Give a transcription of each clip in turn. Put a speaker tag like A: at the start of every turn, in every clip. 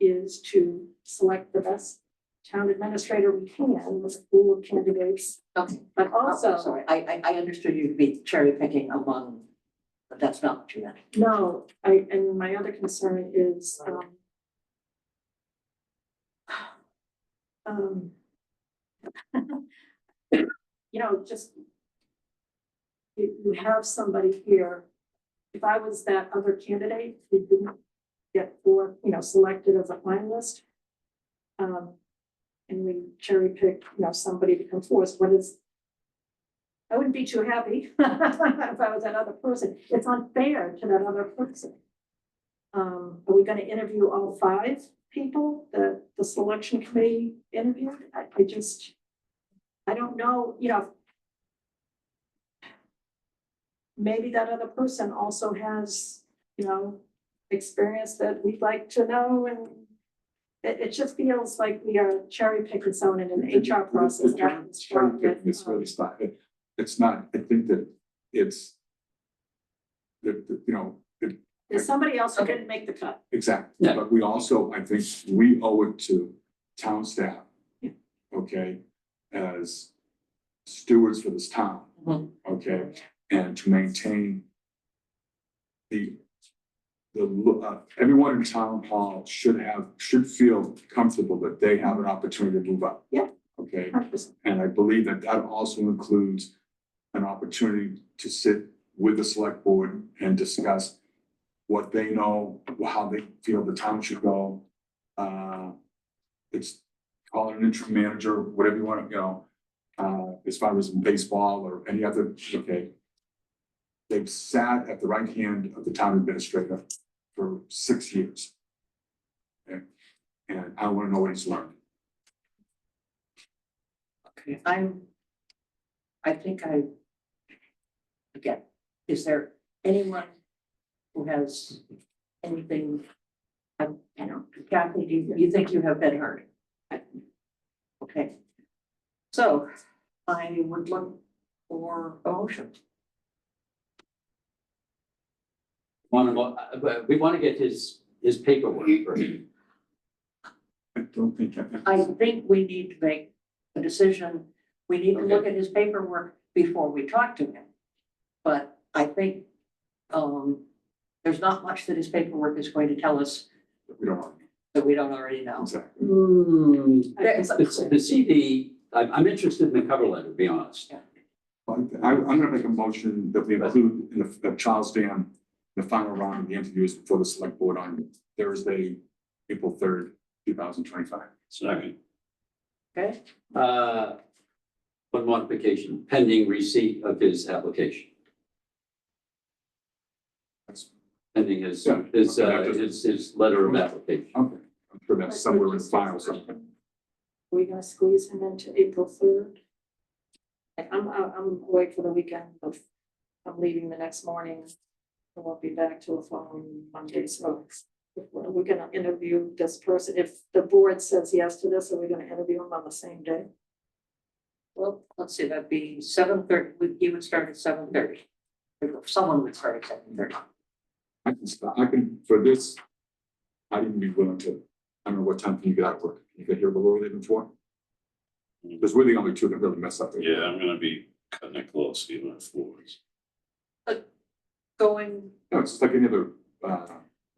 A: is to select the best town administrator we can with a pool of candidates.
B: Okay.
A: But
B: I'm
A: also,
B: Sorry, I, I, I understood you to be cherry picking among, but that's not true.
A: no, I, and my other concern is, um, um, you know, just you, you have somebody here, if I was that other candidate who didn't get four, you know, selected as a finalist, um, and we cherry pick, you know, somebody to come forth, what is, I wouldn't be too happy if I was that other person. It's unfair to that other person. Um, are we gonna interview all five people that the selection committee interviewed? I, I just, I don't know, you know. Maybe that other person also has, you know, experience that we'd like to know and it, it just feels like we are cherry picking someone in an HR process.
C: The
A: not
C: term cherry pick
A: constructive.
C: is really not, it- it's not, I think that it's. That, that, you know, it,
A: There's somebody else who didn't make the cut.
C: exactly, but we also, I think, we owe it to town staff.
A: Yeah.
C: Okay, as stewards for this town,
A: Mm-hmm.
C: okay, and to maintain. The, the, lo- uh, everyone in town hall should have, should feel comfortable that they have an opportunity to move up.
A: Yeah.
C: Okay,
A: Hundred
C: and I believe that that also includes an opportunity to sit with the select board and discuss what they know, how they feel the town should go. Uh, it's call it an interim manager, whatever you want to go, uh, as far as baseball or any other, okay. They've sat at the right hand of the town administrator for six years. And, and I want to know what he's learned.
B: Okay, I'm, I think I, again, is there anyone who has anything? I, I don't, Kathy, do you, you think you have been heard? Okay. So I would look for a motion.
D: Want to, uh, but we want to get his, his paperwork first.
C: I don't think I.
B: I think we need to make a decision. We need to look at his paperwork before we talk to him. But I think, um, there's not much that his paperwork is going to tell us
C: We don't want to.
B: that we don't already know.
C: Exactly.
D: Hmm,
B: There's-
D: the, the CD, I'm, I'm interested in the cover letter, to be honest.
C: I, I'm gonna make a motion that we include in the, that Charles Dam, the final round of the interviews before the select board on Thursday, April third, two thousand twenty-five.
D: Second.
B: Okay.
D: Uh, one modification, pending receipt of his application.
C: That's-
D: Pending his,
C: Yeah,
D: his,
C: okay,
D: uh,
C: that doesn't-
D: his, his letter of application.
C: Okay. I'm sure that's somewhere in the file
A: Are
C: somewhere.
A: we gonna squeeze him into April third? I'm, I'm I'm away for the weekend, but I'm leaving the next morning. I won't be back till the following Monday, so are we gonna interview this person? If the board says yes to this, are we gonna interview him on the same day?
B: Well, let's see, that'd be seven thirty, he would start at seven thirty. Someone would start at seven thirty.
C: I can, stop- I can, for this, I'd even be willing to, I don't know, what time can you get out of work? You get here a little earlier than four? Because we're the only two that really mess up. there.
E: Yeah, I'm gonna be cutting it close, even at fours.
B: Going,
C: No, it's just like any other, uh,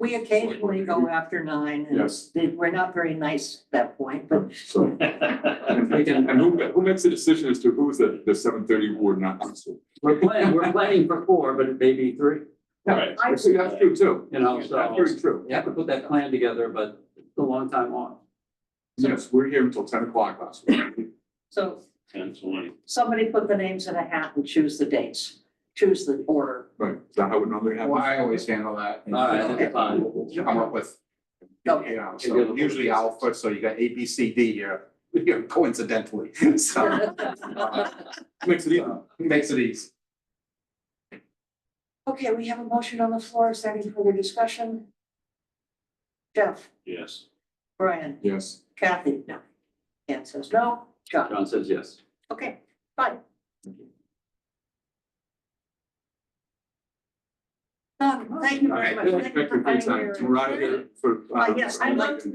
B: we occasionally go after nine and
C: Yes.
B: they- we're not very nice at that point, but
C: so. And and who, who makes the decision as to who's the, the seven thirty ward not?
D: We're planning, we're planning for four, but it may be three,
E: Right.
B: I-
C: See, that's true too.
D: you know,
C: That's
D: so
C: very true.
D: you have to put that plan together, but it's a long time on.
C: Yes, we're here until ten o'clock last week.
B: so
E: Ten twenty.
B: somebody put the names in a hat and choose the dates, choose the order.
C: Right, is that how it normally happens?
F: Well, I always handle that.
D: All right, that's fine.
F: Come up with,
B: Okay.
F: you know, so usually I'll put, so you got A, B, C, D here, you know, coincidentally, so
C: Makes it easy.
F: makes it easy.
B: Okay, we have a motion on the floor. Is there any further discussion? Jeff,
E: Yes.
B: Brian,
C: Yes.
B: Kathy? No. Ann says no. John?
D: John says yes.
B: Okay, fine. Um, thank you very
C: All
B: much.
C: right, thank you for your
B: finding
C: time. We're out of here for. uh,
B: Uh, yes, I'd like to-